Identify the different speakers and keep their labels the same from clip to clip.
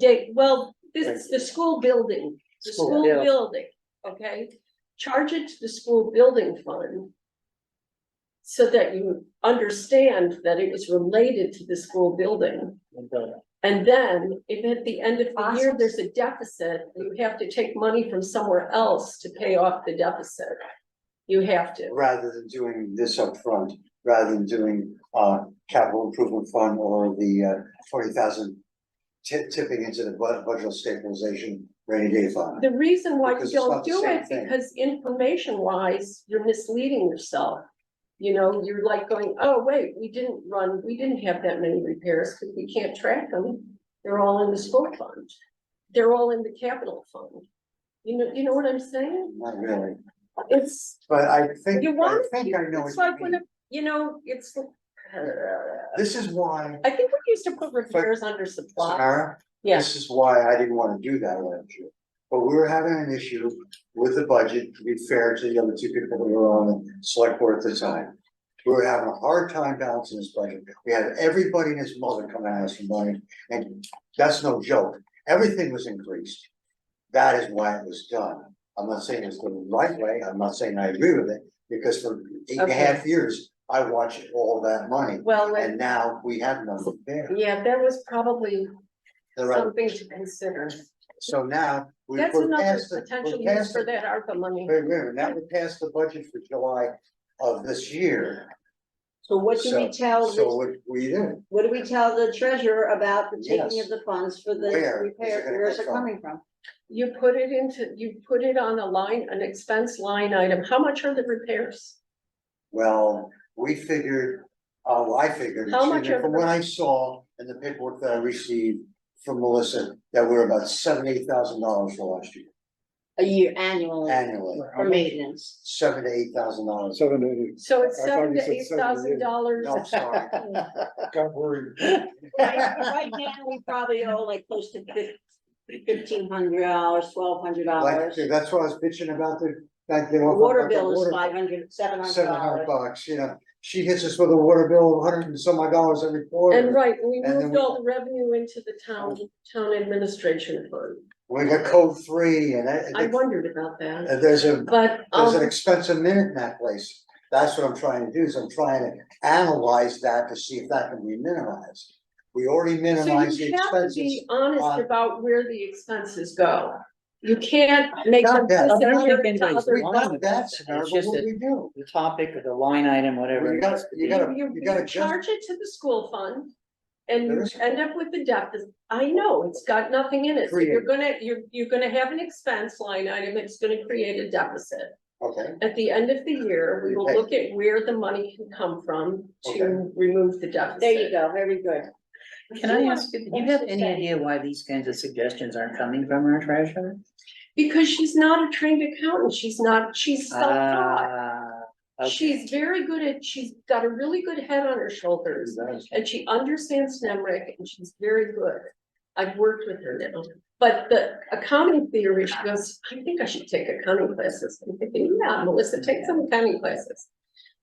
Speaker 1: Jay, well, this is the school building, the
Speaker 2: School
Speaker 1: school
Speaker 2: build.
Speaker 1: building, okay? Charge it to the school building fund. So that you understand that it was related to the school building.
Speaker 2: uh,
Speaker 1: And then if at the end of the year,
Speaker 3: Awesome.
Speaker 1: there's a deficit, you have to take money from somewhere else to pay off the deficit. You have to.
Speaker 2: Rather than doing this upfront, rather than doing uh capital improvement fund or the uh forty thousand. Tip tipping into the bu- budget stabilization rainy day fund.
Speaker 1: The reason why you
Speaker 2: Because it's
Speaker 1: don't
Speaker 2: not the
Speaker 1: do
Speaker 2: same
Speaker 1: it,
Speaker 2: thing.
Speaker 1: because information wise, you're misleading yourself. You know, you're like going, oh, wait, we didn't run, we didn't have that many repairs, because we can't track them. They're all in the school fund. They're all in the capital fund. You know, you know what I'm saying?
Speaker 2: Not really,
Speaker 1: It's,
Speaker 2: but I think,
Speaker 1: you
Speaker 2: I
Speaker 1: want,
Speaker 2: think I know
Speaker 1: it's
Speaker 2: what
Speaker 1: like
Speaker 2: you
Speaker 1: when, a-
Speaker 2: mean.
Speaker 1: you know, it's.
Speaker 2: This is why,
Speaker 1: I think we used to put repairs under supply.
Speaker 2: Samara,
Speaker 1: Yeah,
Speaker 2: this is why I didn't wanna do that last year. But we were having an issue with the budget, to be fair to the other two people that were on the select board at the time. We were having a hard time balancing this budget. We had everybody and his mother coming at us for money, and that's no joke. Everything was increased. That is why it was done. I'm not saying it's the right way, I'm not saying I agree with it, because for eight and a half years, I watched all that money.
Speaker 1: well,
Speaker 2: And now we have nothing there.
Speaker 1: yeah, that was probably
Speaker 2: The right-
Speaker 1: something to consider.
Speaker 2: So now, we
Speaker 1: That's
Speaker 2: put
Speaker 1: another
Speaker 2: past the,
Speaker 1: potential
Speaker 2: we
Speaker 1: use
Speaker 2: passed
Speaker 1: for
Speaker 2: the,
Speaker 1: that ARPA money.
Speaker 2: wait, wait, now we passed the budget for July of this year.
Speaker 3: So what do we
Speaker 2: So-
Speaker 3: tell,
Speaker 2: So
Speaker 3: the-
Speaker 2: what we did,
Speaker 3: what do we tell the treasurer about the taking
Speaker 2: Yes.
Speaker 3: of the funds for the
Speaker 2: Where is it
Speaker 3: repair,
Speaker 2: gonna
Speaker 3: where's
Speaker 2: come
Speaker 3: it
Speaker 2: from?
Speaker 3: coming from?
Speaker 1: You put it into, you put it on a line, an expense line item. How much are the repairs?
Speaker 2: well, we figured, oh, I figured,
Speaker 1: How much
Speaker 2: excuse me,
Speaker 1: of
Speaker 2: from
Speaker 1: the-
Speaker 2: what I saw and the paperwork that I received from Melissa, that we're about seventy-eight thousand dollars for last year
Speaker 3: A year annually
Speaker 2: annually,
Speaker 3: for maintenance.
Speaker 2: seven to eight thousand dollars.
Speaker 4: Seven eighty.
Speaker 1: So it's
Speaker 4: I thought
Speaker 1: seven
Speaker 4: you
Speaker 1: to
Speaker 4: said
Speaker 1: eight thousand dollars.
Speaker 2: No, I'm sorry.
Speaker 4: Got worried.
Speaker 3: Right right now, we probably owe like close to fifteen hundred dollars, twelve hundred
Speaker 2: Like,
Speaker 3: dollars.
Speaker 2: that's what I was bitching about the, that they were.
Speaker 3: Water
Speaker 2: about the
Speaker 3: bill is
Speaker 2: water-
Speaker 3: five hundred, seven hundred
Speaker 2: Seven hundred
Speaker 3: dollars.
Speaker 2: bucks, you know, she hits us with a water bill of hundred and some odd dollars every quarter.
Speaker 1: And right, we
Speaker 2: And then
Speaker 1: moved
Speaker 2: we- Oh.
Speaker 1: all the revenue into the town, town administration fund.
Speaker 2: We got code three and that-
Speaker 1: I wondered about that,
Speaker 2: and there's a,
Speaker 1: but,
Speaker 2: there's an
Speaker 1: um,
Speaker 2: expensive minute in that place. That's what I'm trying to do is I'm trying to analyze that to see if that can be minimized. We already
Speaker 1: so
Speaker 2: minimized the
Speaker 1: you have to
Speaker 2: expenses.
Speaker 1: be honest
Speaker 2: on-
Speaker 1: about where the expenses go. You can't make them.
Speaker 2: Not that.
Speaker 5: I don't think
Speaker 1: consider it to
Speaker 5: anybody's
Speaker 1: other-
Speaker 2: We've done that,
Speaker 5: It's
Speaker 2: Sarah, but
Speaker 5: just
Speaker 2: what do
Speaker 5: a-
Speaker 2: we do?
Speaker 5: the topic or the line item, whatever.
Speaker 2: You
Speaker 5: it
Speaker 2: gotta,
Speaker 5: has to
Speaker 2: you
Speaker 5: be.
Speaker 2: gotta,
Speaker 1: You,
Speaker 2: you gotta
Speaker 1: you
Speaker 2: just,
Speaker 1: charge it to the school fund and
Speaker 2: There
Speaker 1: you
Speaker 2: is-
Speaker 1: end up with the deficit. I know, it's got nothing in it. So you're
Speaker 2: Create.
Speaker 1: gonna, you're, you're gonna have an expense line item. It's gonna create a deficit.
Speaker 2: okay,
Speaker 1: At the end of the year, we will
Speaker 2: Okay.
Speaker 1: look at where the money can come from to
Speaker 2: Okay.
Speaker 1: remove the deficit.
Speaker 3: There you go, very good.
Speaker 5: Can I ask, you? do you have any idea why these kinds of suggestions aren't coming from our treasurer?
Speaker 1: Because she's not a trained accountant. She's not, she's self-taught.
Speaker 5: Ah, okay.
Speaker 1: She's very good at, she's got a really good head on her shoulders and she understands NEMRIC and she's very good. I've worked with her now, but the accounting theory, she goes, I think I should take accounting classes. I'm thinking, yeah, Melissa, take some accounting classes.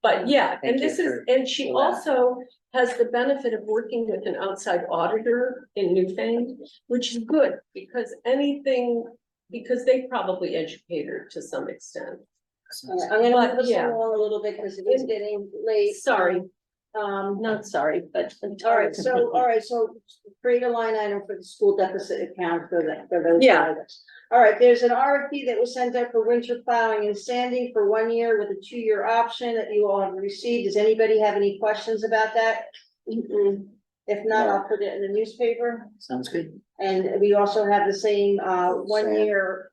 Speaker 1: But yeah, and
Speaker 5: Thank you
Speaker 1: this is,
Speaker 5: for-
Speaker 1: and she
Speaker 5: for that.
Speaker 1: also has the benefit of working with an outside auditor in Newfane, which is good because anything, because they probably educate her to some extent.
Speaker 3: All right, I'm gonna
Speaker 1: But,
Speaker 3: move us
Speaker 1: yeah.
Speaker 3: along a little bit because it is getting late.
Speaker 1: Sorry,
Speaker 3: Um,
Speaker 1: not sorry, but.
Speaker 3: All right, so, all right, so create a line item for the school deficit account for that, for those
Speaker 1: Yeah.
Speaker 3: items. All right, there's an RFP that was sent out for winter plowing and sanding for one year with a two-year option that you all have received. Does anybody have any questions about that? If not, I'll put it in the newspaper.
Speaker 5: Sounds good.
Speaker 3: And we also have the same, uh, one
Speaker 2: Sand.
Speaker 3: year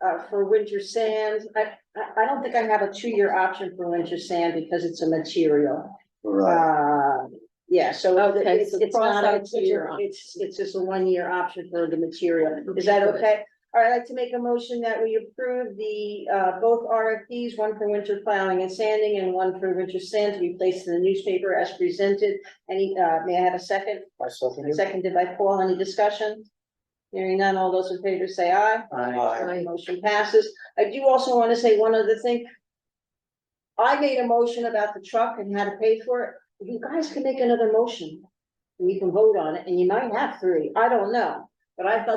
Speaker 3: uh, for winter sand. I, I, I don't think I have a two-year option for winter sand because it's a material.
Speaker 2: right,
Speaker 3: Uh, yeah, so
Speaker 1: Okay,
Speaker 3: it's,
Speaker 1: so
Speaker 3: it's
Speaker 1: cross
Speaker 3: not,
Speaker 1: out
Speaker 3: a- it's,
Speaker 1: two-year
Speaker 3: a-
Speaker 1: option.
Speaker 3: it's, it's just a one-year option for the material, is that okay? All right, I'd like to make a motion that we approve the, uh, both RFPs, one for winter plowing and sanding and one for winter sand to be placed in the newspaper as presented. Any, uh, may I have a second?
Speaker 2: I second it.
Speaker 3: Seconded by Paul, any discussion? Hearing none, all those in favor say aye.
Speaker 5: I,
Speaker 2: Aye.
Speaker 1: Aye.
Speaker 3: Motion passes. I do also want to say one other thing. I made a motion about the truck and how to pay for it. You guys can make another motion. and You can vote on it and you might have three. I don't know. but I felt